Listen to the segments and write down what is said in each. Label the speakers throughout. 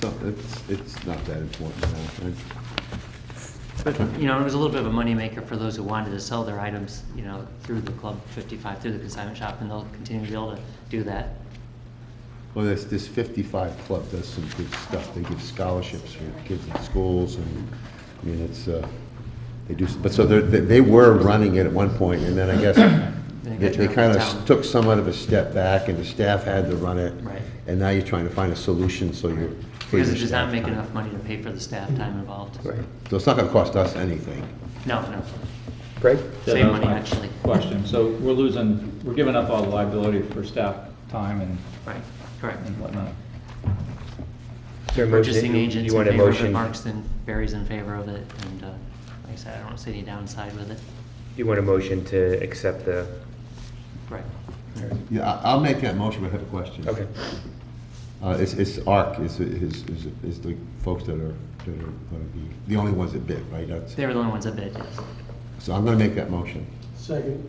Speaker 1: So it's, it's not that important, I don't think.
Speaker 2: But, you know, it was a little bit of a moneymaker for those who wanted to sell their items, you know, through the Club 55, through the consignment shop, and they'll continue to be able to do that.
Speaker 1: Well, this, this 55 Club does some good stuff. They give scholarships for kids in schools, and, I mean, it's, uh, they do, s- but so they're, they they were running it at one point, and then I guess they-
Speaker 2: got
Speaker 1: they
Speaker 2: turned
Speaker 1: kind
Speaker 2: down.
Speaker 1: of took somewhat of a step back, and the staff had to run it.
Speaker 2: Right.
Speaker 1: And now you're trying to find a solution, so you're. for
Speaker 2: Because
Speaker 1: your
Speaker 2: it does not
Speaker 1: staff
Speaker 2: make
Speaker 1: time.
Speaker 2: enough money to pay for the staff time involved.
Speaker 1: Right. So it's not gonna cost us anything.
Speaker 2: No, no.
Speaker 3: Greg?
Speaker 2: Save
Speaker 4: Yeah, that was
Speaker 2: money,
Speaker 4: my
Speaker 2: actually.
Speaker 4: Question, so we're losing, we're giving up all the liability for staff time and
Speaker 2: Right, correct.
Speaker 4: and whatnot.
Speaker 3: Is there a motion?
Speaker 2: Purchasing
Speaker 3: You-
Speaker 2: agents
Speaker 3: You
Speaker 2: in
Speaker 3: want a
Speaker 2: favor of it,
Speaker 3: motion?
Speaker 2: Mark's in, Barry's in favor of it, and uh, like I said, I don't see any downside with it.
Speaker 3: You want a motion to accept the,
Speaker 2: Right.
Speaker 1: Yeah, I- I'll make that motion, but I have a question.
Speaker 3: okay.
Speaker 1: Uh, It's, it's ARC, is, is, is- is the folks that are, that are gonna be, the only ones that bid, right? That's,
Speaker 2: They were the only ones that bid, yes.
Speaker 1: so I'm gonna make that motion.
Speaker 5: Second.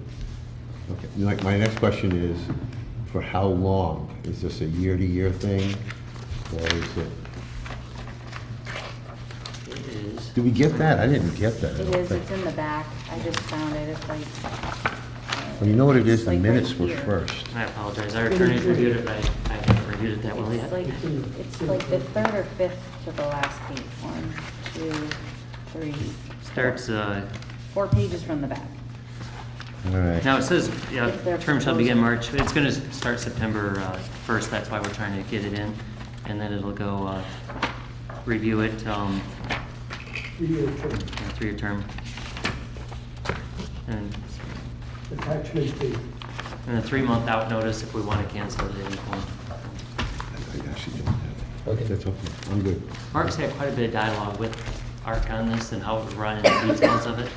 Speaker 1: Okay, like, my next question is, for how long? Is this a year-to-year thing? Or is it,
Speaker 2: It is.
Speaker 1: did we get that? I didn't get that. I
Speaker 6: It
Speaker 1: don't
Speaker 6: is,
Speaker 1: think.
Speaker 6: it's in the back, I just found it, it's like.
Speaker 1: Well, you know what it is,
Speaker 6: It's
Speaker 1: the
Speaker 6: like
Speaker 1: minutes
Speaker 6: right
Speaker 1: were
Speaker 6: here.
Speaker 1: first.
Speaker 2: And I apologize, our attorneys reviewed it, but I I haven't reviewed it that well
Speaker 6: It's
Speaker 2: yet.
Speaker 6: like, it's like the third or fifth to the last page, one, two, three.
Speaker 2: Starts, uh,
Speaker 6: Four pages from the back.
Speaker 1: All right.
Speaker 2: now it says, yeah,
Speaker 6: It's their
Speaker 2: term shall begin
Speaker 6: proposal.
Speaker 2: March, it's going to start September uh, 1st, that's why we're trying to get it in. And then it'll go, uh, review it, um,
Speaker 5: Three-year
Speaker 2: you
Speaker 5: term,
Speaker 2: know, three-year term. And
Speaker 5: attachment B.
Speaker 2: and a three-month out notice if we want to cancel it at any point.
Speaker 1: I I actually don't have it.
Speaker 3: Okay.
Speaker 1: That's okay, I'm good.
Speaker 2: Mark's had quite a bit of dialogue with ARC on this and how it would run and the details of it.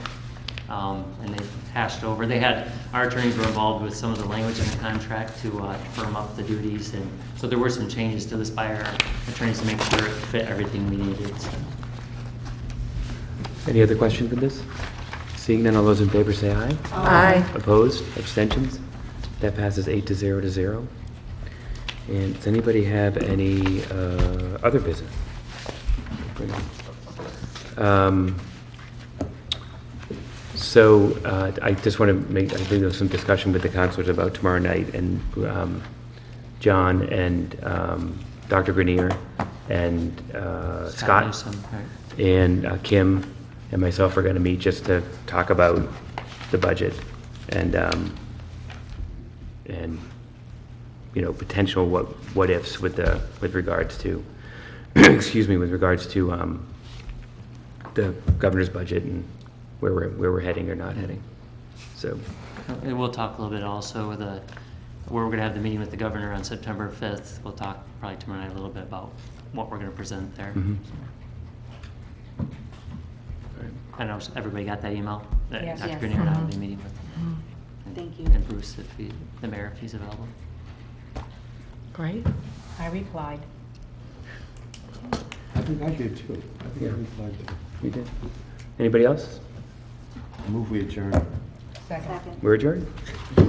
Speaker 2: Um, And they hashed over, they had, our attorneys were involved with some of the language in the contract to uh, firm up the duties. And so there were some changes to this by our attorneys to make sure it fit everything we needed. so.
Speaker 3: Any other questions with this? Seeing none, all those in favor say aye.
Speaker 6: Aye.
Speaker 3: Opposed? Abstentions? That passes eight to zero to zero. And does anybody have any uh, other business? Um, So uh, I just want to make, I think there was some discussion with the counselors about tomorrow night, and um, John and um, Dr. Grenier and uh, Scott
Speaker 2: Newsom, right.
Speaker 3: and uh, Kim and myself are going to meet just to talk about the budget and, um, and, you know, potential what, what ifs with the, with regards to, excuse me, with regards to um, the governor's budget and where we're, where we're heading or not heading. So,
Speaker 2: And we'll talk a little bit also with the, where we're going to have the meeting with the governor on September 5th. We'll talk probably tomorrow night a little bit about what we're going to present there.
Speaker 3: Mhm.
Speaker 2: I don't know, if everybody got that email? that
Speaker 6: Yes.
Speaker 2: Dr.
Speaker 6: Yes.
Speaker 2: Grenier and I will be
Speaker 6: Mhm.
Speaker 2: meeting with. and-
Speaker 6: Thank you.
Speaker 2: And Bruce, if he, the mayor, if he's available.
Speaker 7: Great.
Speaker 6: I replied.
Speaker 1: I think I did too. I think I
Speaker 3: Yeah.
Speaker 1: replied to
Speaker 3: we did. Anybody else?
Speaker 1: it. Move we adjourn.
Speaker 7: Second.
Speaker 6: Second.
Speaker 3: We're adjourned?